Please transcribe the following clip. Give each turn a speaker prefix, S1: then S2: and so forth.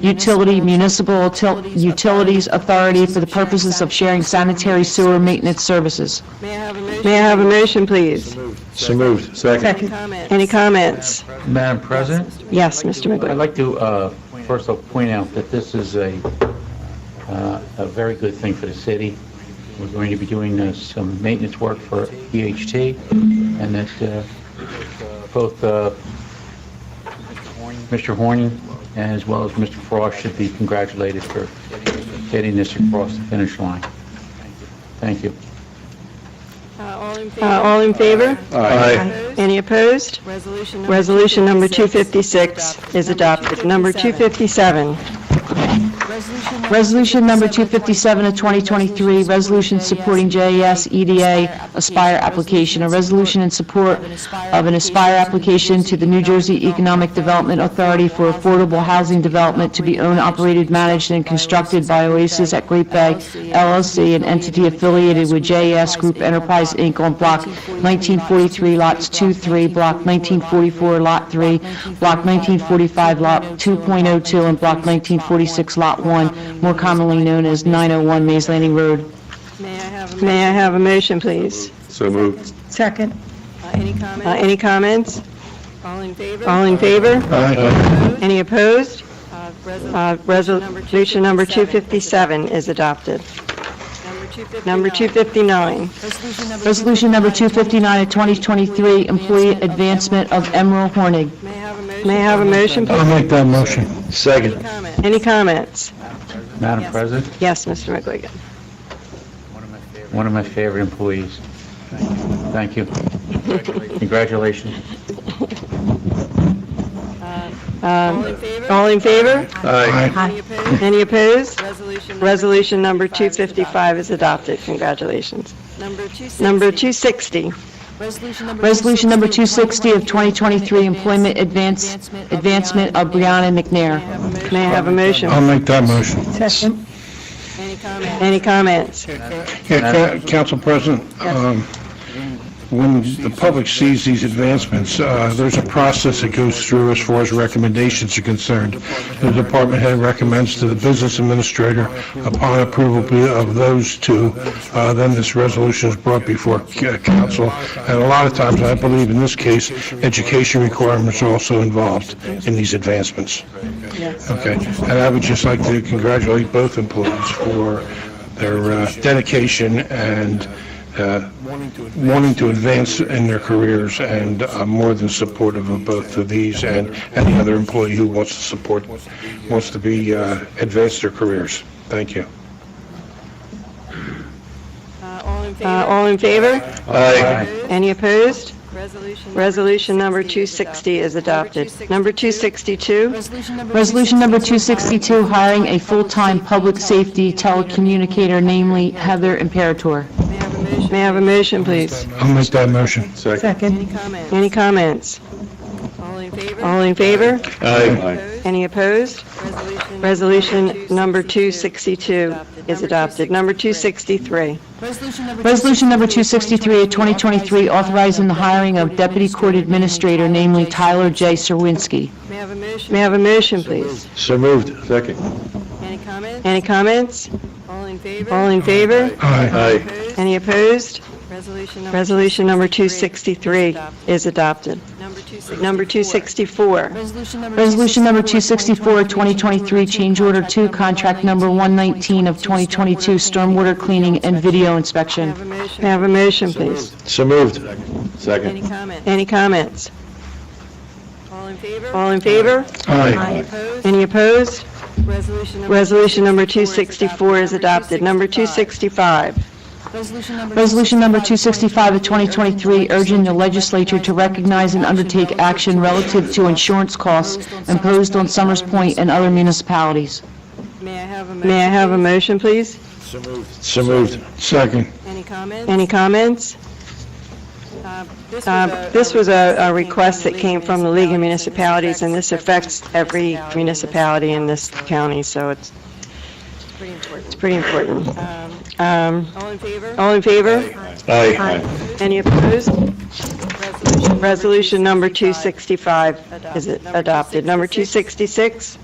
S1: Utility Municipal Til- Utilities Authority for the purposes of sharing sanitary sewer maintenance services.
S2: May I have a motion?
S3: May I have a motion, please?
S4: So moved. Second.
S2: Comment?
S3: Any comments?
S5: Madam President,
S3: Yes, Mr.
S5: I'd
S3: McGuinn.
S5: like to, uh, first of all, point out that this is a, uh, a very good thing for the city. We're going to be doing uh, some maintenance work for EHT, and that uh, both uh, Mr. Horning as well as Mr. Frost should be congratulated for getting this across the finish line. Thank you.
S2: Uh, All in
S3: Uh,
S2: favor?
S3: All in favor?
S4: Aye.
S2: Opposed?
S3: Any opposed?
S2: Resolution number
S3: Resolution number
S2: 256
S3: 256 is adopted. Number 257,
S1: Resolution number 257 of 2023, resolution supporting JES EDA E Aspire application, a resolution in support of an Aspire application to the New Jersey Economic Development Authority for affordable housing development to be owned, operated, managed, and constructed by Oasis at Great Bay LLC, an entity affiliated with JES Group Enterprise, Inc. on Block 1943, Lots 2, 3, Block 1944, Lot 3, Block 1945, Lot 2.02, and Block 1946, Lot 1, more commonly known as 901 Mays Landing Road.
S2: May I have uh, a motion?
S3: may I have a motion, please?
S4: So moved.
S2: Uh, Any
S3: Uh,
S2: comment?
S3: Any comments?
S2: All in favor?
S3: All in favor?
S4: Aye.
S3: Any opposed?
S2: Uh, resol-
S3: Uh, Resolution number 257 is adopted.
S2: Number 259.
S3: Number 259,
S1: Resolution number 259 of 2023, employee advancement of Emerald Hornig.
S2: May I have a motion?
S3: may I have a motion? please?
S4: make that motion. Second.
S2: Comment?
S3: Any comments?
S5: Madam President,
S3: Yes, Mr. McGuigan.
S5: one of my favorite employees. Thank you. Congratulations.
S2: All
S3: Um,
S2: in favor?
S3: All in favor?
S4: Aye.
S2: Any opposed?
S3: Any opposed?
S2: Resolution.
S3: Resolution number
S2: 255.
S3: 255 is adopted. Congratulations.
S2: Number 260.
S3: Number 260,
S1: Resolution number 260 of 2023, employment advance, advancement of Brianna
S2: May I
S1: McNair.
S2: have a motion?
S3: may I have a motion?
S4: make that motion.
S2: Any comment?
S3: Any comments?
S6: Yeah, Ca- Council President, um, when the public sees these advancements, uh, there's a process that goes through as far as recommendations are concerned. The department head recommends to the business administrator, upon approval of those two, uh, then this resolution is brought before c- council. And a lot of times, I believe in this case, education requirements are also involved in these advancements. Okay, and I would just like to congratulate both employees for their uh, dedication and uh, wanting to advance in their careers, and I'm more than supportive of both of these and any other employee who wants to support, wants to be, uh, advance their careers. Thank you.
S2: Uh, All in
S3: Uh,
S2: favor?
S3: All in favor?
S4: Aye.
S2: Opposed?
S3: Any opposed?
S2: Resolution.
S3: Resolution number 260 is adopted. Number 262,
S1: Resolution number 262, hiring a full-time public safety telecommunicator, namely Heather Imperator.
S2: May I have a motion?
S3: may I have a motion, please?
S6: I'll make that motion.
S4: Second.
S2: Any comment?
S3: Any comments?
S2: All in favor?
S3: All in favor?
S4: Aye.
S2: Opposed?
S3: Any opposed?
S2: Resolution.
S3: Resolution number 262 is adopted. Number 263,
S1: Resolution number 263 of 2023, authorizing the hiring of deputy court administrator, namely Tyler J. Serwinski.
S2: May I have a motion?
S3: may I have a motion, please?
S4: So moved. Second.
S2: Any comment?
S3: Any comments?
S2: All in favor?
S3: All in favor?
S6: Aye.
S4: Aye.
S2: Opposed?
S3: Any opposed?
S2: Resolution number.
S3: Resolution number 263 is adopted.
S2: Number 264.
S3: Number 264,
S1: Resolution number 264 of 2023, change order 2, contract number 119 of 2022, stormwater cleaning and video
S2: May I
S1: inspection.
S2: have a
S3: may I
S2: motion?
S3: have a motion, please?
S4: So moved.
S2: Any
S4: Second.
S2: comment?
S3: Any comments?
S2: All in favor?
S3: All in favor?
S4: Aye.
S2: Opposed?
S3: Any opposed?
S2: Resolution number.
S3: Resolution number 264 is adopted. Number
S2: 265.
S3: 265,
S1: Resolution number 265 of 2023, urging the legislature to recognize and undertake action relative to insurance costs imposed on Summers Point and other municipalities.
S2: May I have a motion?
S3: may I have a motion, please?
S4: So moved.
S6: Second.
S2: Any comment?
S3: Any comments?
S2: Uh,
S3: Uh, This was a a request that came from the League of Municipalities, and this affects every municipality in this county, so it's
S2: It's pretty important.
S3: it's pretty important.
S2: Um,
S3: Um,
S2: All in favor?
S3: All in favor?
S4: Aye.
S3: Any opposed?
S2: Resolution.
S3: Resolution number 265 is adopted. Number 266?